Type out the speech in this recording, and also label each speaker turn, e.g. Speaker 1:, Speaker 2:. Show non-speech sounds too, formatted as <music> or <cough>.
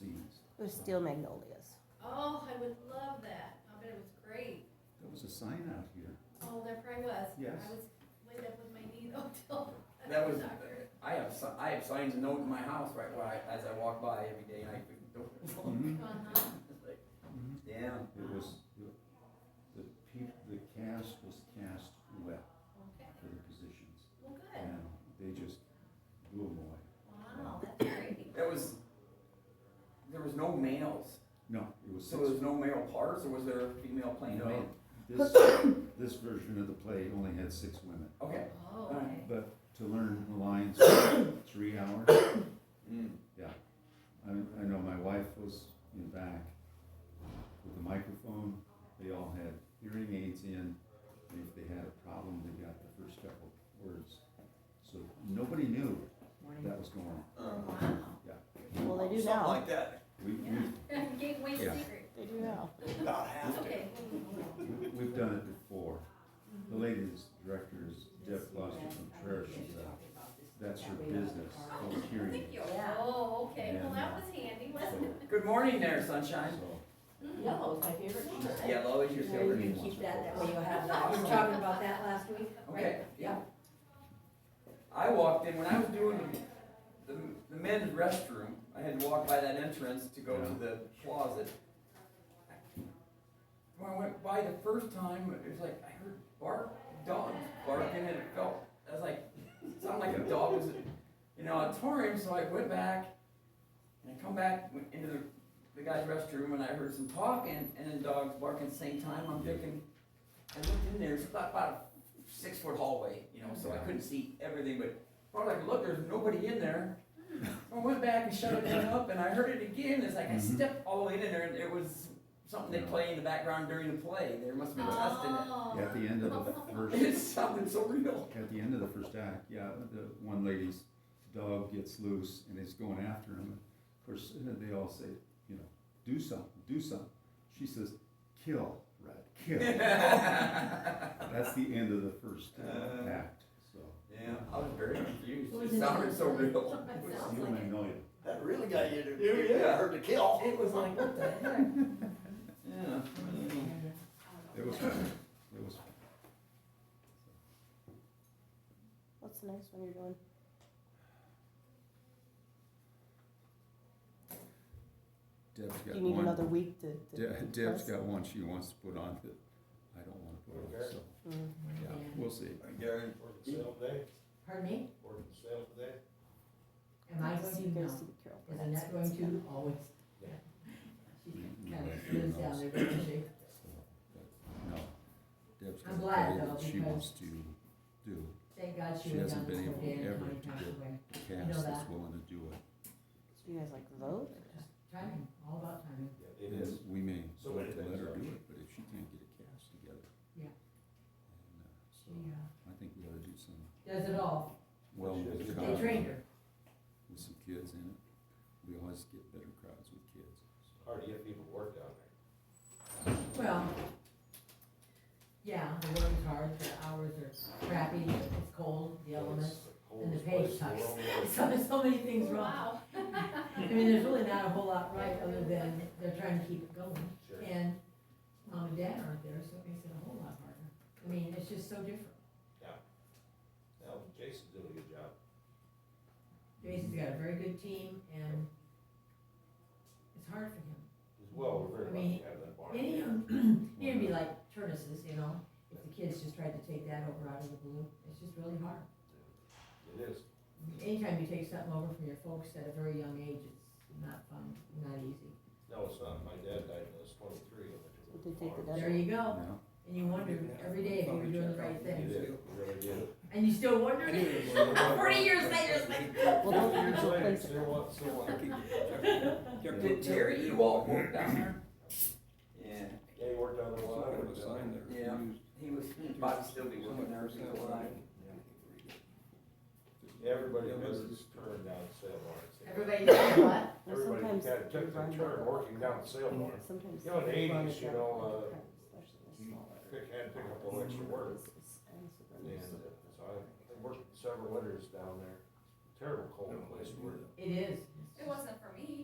Speaker 1: It was steel magnolias.
Speaker 2: Oh, I would love that. I bet it was great.
Speaker 3: There was a sign out here.
Speaker 2: Oh, there probably was.
Speaker 3: Yes.
Speaker 2: I was laid up with my knee though <laughs> till.
Speaker 4: That was,
Speaker 2: Doctor.
Speaker 4: I have, si- I have signs and note in my house right where I, as I walk by every day and I freaking don't.
Speaker 3: Mhm,
Speaker 4: <laughs>
Speaker 2: Uh-huh.
Speaker 4: It's like,
Speaker 3: mhm.
Speaker 4: Damn.
Speaker 3: It was, the- the peop the cast was cast well
Speaker 2: Okay.
Speaker 3: for the positions.
Speaker 2: Well, good.
Speaker 3: And they just blew them away.
Speaker 2: Wow, that's great.
Speaker 4: That was, there was no males,
Speaker 3: No, it was
Speaker 4: so
Speaker 3: six.
Speaker 4: there was no male parts, or was there a female playing
Speaker 3: No,
Speaker 4: a man?
Speaker 3: This, this version of the play only had six women.
Speaker 4: Okay.
Speaker 2: Oh, okay.
Speaker 3: But to learn the <coughs> lines, took three hours.
Speaker 4: Mm.
Speaker 3: I, I know my wife was in back with a microphone. They all had hearing aids in. And if they had a problem, they got the first couple words. So nobody knew that was going on.
Speaker 4: Um,
Speaker 2: Wow.
Speaker 1: Well, they do
Speaker 4: Something
Speaker 1: now.
Speaker 4: like that,
Speaker 3: We, we,
Speaker 2: <laughs> Yeah. Gateway
Speaker 3: Yeah.
Speaker 2: secret.
Speaker 1: They do now.
Speaker 4: about half to.
Speaker 2: Okay.
Speaker 3: we've done it before. The lady that's director is Deb Foster Contreras. She's a, that's her business, public hearing.
Speaker 2: Thank you. Oh, okay. Well, that was handy,
Speaker 3: So,
Speaker 2: wasn't it?
Speaker 4: Good morning there, sunshine.
Speaker 3: so,
Speaker 5: Yellow is my favorite color.
Speaker 4: Yellow is your
Speaker 5: You know, you
Speaker 4: favorite.
Speaker 5: can keep that, that way you'll have that. We were talking about that last week, right?
Speaker 4: Okay, yeah. I walked in, when I was doing the, the men's restroom, I had to walk by that entrance to go to
Speaker 3: Yeah.
Speaker 4: the closet. When I went by the first time, it was like, I heard bark, dogs barking, and it felt, I was like, <laughs> it sounded like a dog was, you know, a torrent, so I went back, and I come back into the, the guy's restroom, and I heard some talking, and then dogs barking at the same time, I'm thinking, I looked in there, it's about, about a six foot hallway, you know, so I couldn't see everything, but I was like, look, there's nobody in there. I went back and shut it down up and I heard it again, it's like I
Speaker 3: Mhm.
Speaker 4: stepped all the way in there and it was something they play in the background during the play, there must have been a test in
Speaker 2: Oh.
Speaker 3: At the end of the first
Speaker 4: <laughs> it. It sounded
Speaker 3: <laughs>
Speaker 4: so real. <laughs>
Speaker 3: At the end of the first act, yeah, the one lady's dog gets loose and is going after him. Of course, uh, they all say, you know, do something, do something. She says, kill, Red, kill.
Speaker 4: Yeah,
Speaker 3: That's the end of the first uh,
Speaker 4: Uh,
Speaker 3: act, so.
Speaker 4: I was very confused,
Speaker 5: What was
Speaker 4: it
Speaker 5: it?
Speaker 4: sounded so real.
Speaker 5: <laughs>
Speaker 2: It sounds
Speaker 3: You
Speaker 2: like it.
Speaker 3: may know it.
Speaker 6: That really got you to,
Speaker 4: Oh, Yeah, yeah.
Speaker 6: hurt to kill.
Speaker 4: It
Speaker 6: <laughs>
Speaker 4: was like, what the heck? <laughs> Yeah.
Speaker 3: It was, fun. it was, fun.
Speaker 1: What's the next one you're doing?
Speaker 3: Deb's
Speaker 1: Do
Speaker 3: got
Speaker 1: you need another
Speaker 3: one,
Speaker 1: week to? to
Speaker 3: De- Deb's
Speaker 1: press?
Speaker 3: got one she wants to put on that I don't wanna put on, so,
Speaker 1: Mm.
Speaker 3: yeah, we'll see.
Speaker 4: Gary.
Speaker 6: Working sale today,
Speaker 5: Pardon me?
Speaker 6: working sale today.
Speaker 5: Am I
Speaker 1: So
Speaker 5: going
Speaker 1: you
Speaker 5: to
Speaker 1: guys
Speaker 5: know?
Speaker 1: see the Carol
Speaker 5: Isn't
Speaker 1: Burnett
Speaker 5: that going
Speaker 1: stuff.
Speaker 5: to always?
Speaker 6: Yeah.
Speaker 5: She
Speaker 3: Mm-hmm.
Speaker 5: kind of lives down there, doesn't she?
Speaker 3: No, Deb's got
Speaker 5: I'm
Speaker 3: a
Speaker 5: glad,
Speaker 3: play
Speaker 5: though,
Speaker 3: that she
Speaker 5: because-
Speaker 3: wants to do,
Speaker 5: Thank God she
Speaker 3: She
Speaker 5: went down
Speaker 3: hasn't
Speaker 5: to
Speaker 3: been able
Speaker 5: Spokane
Speaker 3: ever
Speaker 5: and
Speaker 3: to
Speaker 5: Connie passed
Speaker 3: do it.
Speaker 5: away.
Speaker 3: cast that's
Speaker 5: that.
Speaker 3: willing to do it.
Speaker 1: Do you guys like vote?
Speaker 5: Timing, all about timing.
Speaker 6: Yeah,
Speaker 3: It is, we may
Speaker 6: So
Speaker 3: vote
Speaker 6: many
Speaker 3: to let
Speaker 6: things
Speaker 3: her
Speaker 6: are-
Speaker 3: do it, but if she can't get a cast together.
Speaker 5: Yeah.
Speaker 3: And, uh,
Speaker 5: She,
Speaker 3: So I think we ought to do some
Speaker 5: uh, does it all.
Speaker 3: well
Speaker 6: She
Speaker 3: with
Speaker 6: does.
Speaker 5: They trained her.
Speaker 3: with some kids in it. We always get better crowds with kids.
Speaker 6: Hard to get people to work down
Speaker 5: Well, yeah, the work is hard, the hours are crappy, it's cold, the
Speaker 6: there.
Speaker 5: elements.
Speaker 6: And
Speaker 5: the pay sucks. <laughs> So
Speaker 6: Well,
Speaker 5: there's so many things wrong.
Speaker 2: Oh, Wow.
Speaker 5: I
Speaker 2: <laughs>
Speaker 5: mean, there's really not a whole lot right other than they're trying to keep it going.
Speaker 6: Sure.
Speaker 5: And mom and dad aren't there, so it makes it a whole lot harder. I mean, it's just so different.
Speaker 6: Jason's doing a good job.
Speaker 5: Jason's got a very good team and it's hard for him.
Speaker 6: As well,
Speaker 5: I
Speaker 6: we're very lucky
Speaker 5: mean,
Speaker 6: to have that barn.
Speaker 5: Any of
Speaker 6: here.
Speaker 5: them, <clears throat> it'd be like Turnus's, you know, if the kids just tried to take that over out of the blue, it's just really hard.
Speaker 6: It is.
Speaker 5: Anytime you take something over from your folks at a very young age, it's not fun, not easy.
Speaker 6: No, it's not. My dad died when I was twenty-three. and I took
Speaker 1: Did they take the dad?
Speaker 6: farm.
Speaker 5: There you go.
Speaker 3: Now,
Speaker 5: And you wonder every day if you were doing the right
Speaker 6: It
Speaker 5: thing.
Speaker 6: is. It really did.
Speaker 5: And you still wonder? <laughs> Forty years later,
Speaker 4: <laughs>
Speaker 5: it's like, <laughs>
Speaker 1: Well, don't
Speaker 6: Years
Speaker 1: don't
Speaker 6: later,
Speaker 1: place it.
Speaker 6: still want, still want.
Speaker 4: Did Terry Ewald work down there? Yeah.
Speaker 6: Yeah, he worked on the one. I worked on.
Speaker 4: Yeah, he was, Bobby still be working there, so I,
Speaker 6: Everybody does this turn down the sale barn.
Speaker 5: everybody knows what?
Speaker 1: Well,
Speaker 6: Everybody
Speaker 1: sometimes
Speaker 6: kinda
Speaker 1: they
Speaker 6: took
Speaker 1: run
Speaker 6: their turn
Speaker 1: that.
Speaker 6: working down the sale barn.
Speaker 1: Sometimes.
Speaker 6: You know, in the
Speaker 1: they run
Speaker 6: 80s,
Speaker 1: it
Speaker 6: you
Speaker 1: down
Speaker 6: know,
Speaker 1: on the
Speaker 6: uh,
Speaker 1: cart, especially the
Speaker 6: you
Speaker 1: smaller
Speaker 6: Pick, had to pick up a little
Speaker 1: ones.
Speaker 6: extra work.
Speaker 1: It's- it's- and so then
Speaker 6: And
Speaker 1: there's-
Speaker 6: uh, so I, I worked several winters down there. Terrible cold place to work.
Speaker 5: It is.
Speaker 2: It wasn't for me.